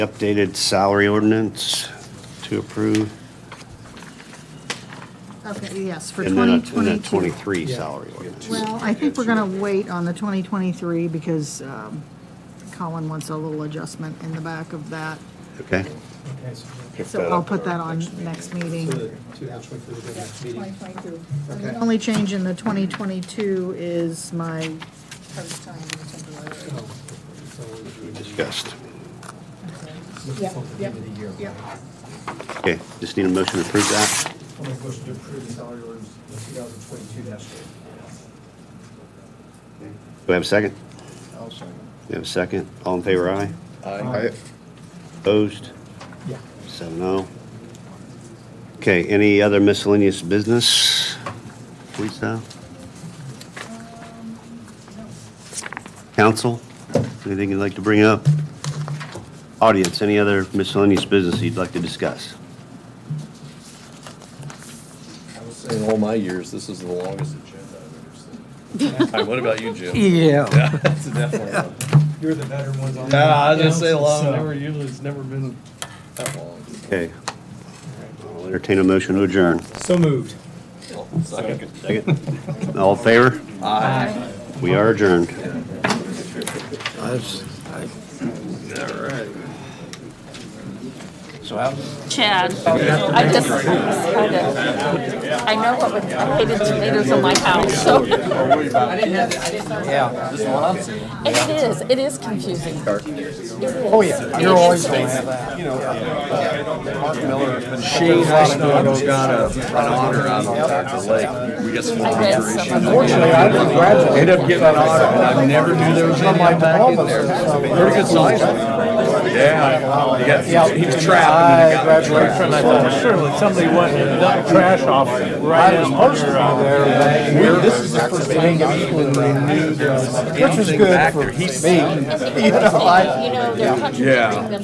Updated salary ordinance to approve, Okay, yes, for and then a- and then 2022. 23 salary ordinance. Well, I think we're going to wait on the 2023 because um, Colin wants a little adjustment in the back of that. Okay? Okay, so Pick So that I'll up put at that our on next meeting. the, to the actual, for the next meeting. And the Okay. only change in the 2022 is my part-time and temporary. Oh, so we just- Discussed. Looking Yeah, forward to the yeah, end of the year. yeah. Okay, just need a motion to approve that. I'll make a motion to approve the salary ordinance two thousand twenty-two dash eight. Do we have a second? I'll second. We have a second. All in favor, aye? Aye. Opposed? Yeah. Seven oh. Okay, any other miscellaneous business, Lisa? Council, anything you'd like to bring up? Audience, any other miscellaneous business you'd like to discuss? I was saying all my years, this is the longest agenda I've ever seen. All right, what about you, Jim? Yeah. Yeah, it's definitely long. You're the veteran ones on. Yeah, I was the gonna say council, long, so- never, usually it's never been that long. Okay. I'll entertain a motion to adjourn. So moved. Second. Second. All in favor? Aye. We are adjourned. That's- I- Chad, I just, I know what with I hated tomatoes in my house, so. Yeah, this one I'm seeing. And it is, it is confusing. Oh, yeah, you're always gonna have that. Shane Rosado got a. Honor out on Taco Lake. We got some more I read some of considerations. them. Fortunately, I didn't graduate. Ended up getting an honor, and I never knew there was any back in there. Pretty good size. Yeah, he got, he was trapped. I graduated from that. Surely somebody went and dumped trash off right I was in supposed to be there. but This is the first thing when they knew. Which was good for me. You know, they're Yeah. contradicting them.